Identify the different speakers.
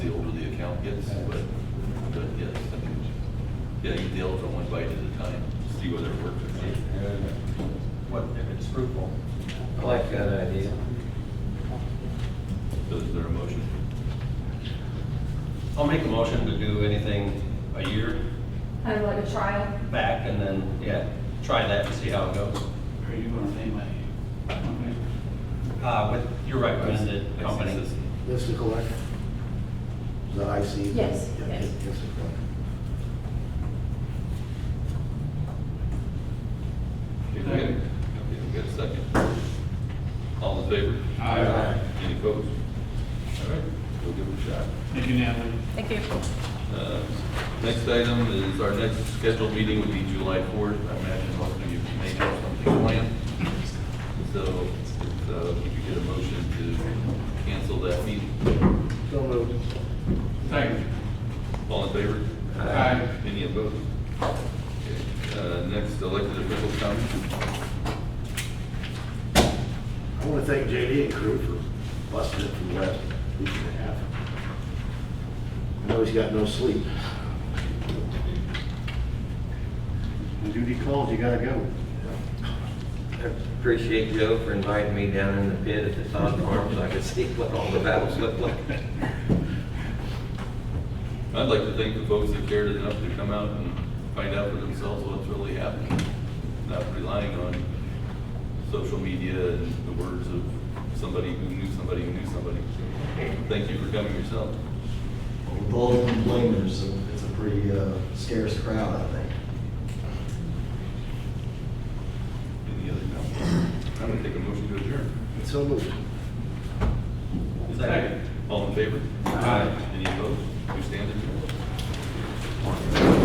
Speaker 1: is, but, but yes, I think, yeah, you deal with them one bite at a time, see whether it works or not.
Speaker 2: What, if it's fruitful?
Speaker 3: I like that idea.
Speaker 1: So is there a motion?
Speaker 2: I'll make a motion to do anything a year
Speaker 4: Kind of like a trial.
Speaker 2: back and then, yeah, try that and see how it goes.
Speaker 5: Are you gonna name a company?
Speaker 2: Uh, with your recommended company.
Speaker 1: Lexus.
Speaker 6: That's the collector? Is that I see?
Speaker 4: Yes,
Speaker 6: Yeah,
Speaker 4: yes.
Speaker 6: That's the collector.
Speaker 1: Okay, okay, we got a second. All in favor?
Speaker 5: Aye.
Speaker 1: Any opposed? All right, we'll give it a shot.
Speaker 5: Thank you, Natalie.
Speaker 4: Thank you.
Speaker 1: Uh, Next item is, our next scheduled meeting would be July fourth. I imagine most of you may have something planned. So, if uh, we could get a motion to cancel that meeting.
Speaker 6: So moved.
Speaker 5: Thank you.
Speaker 1: All in favor?
Speaker 5: Aye.
Speaker 1: Any opposed? Okay, uh, Next, elected officials comment.
Speaker 6: I want to thank JD and crew for busting it for the last week and a half. I know he's got no sleep.
Speaker 7: When duty calls, you gotta go.
Speaker 3: I Appreciate Joe for inviting me down in the pit at the sod farm so I could see what all the battles look like.
Speaker 1: I'd like to thank the folks that cared enough to come out and find out for themselves what's really happening, not relying on social media and the words of somebody who knew somebody who knew somebody. Thank you for coming yourself.
Speaker 8: With all the complainers, it's a pretty uh, scarce crowd, I think.
Speaker 1: Any other comments? I'm gonna take a motion to adjourn.
Speaker 6: So moved.
Speaker 1: Second. All in favor?
Speaker 2: Aye.
Speaker 1: Any opposed?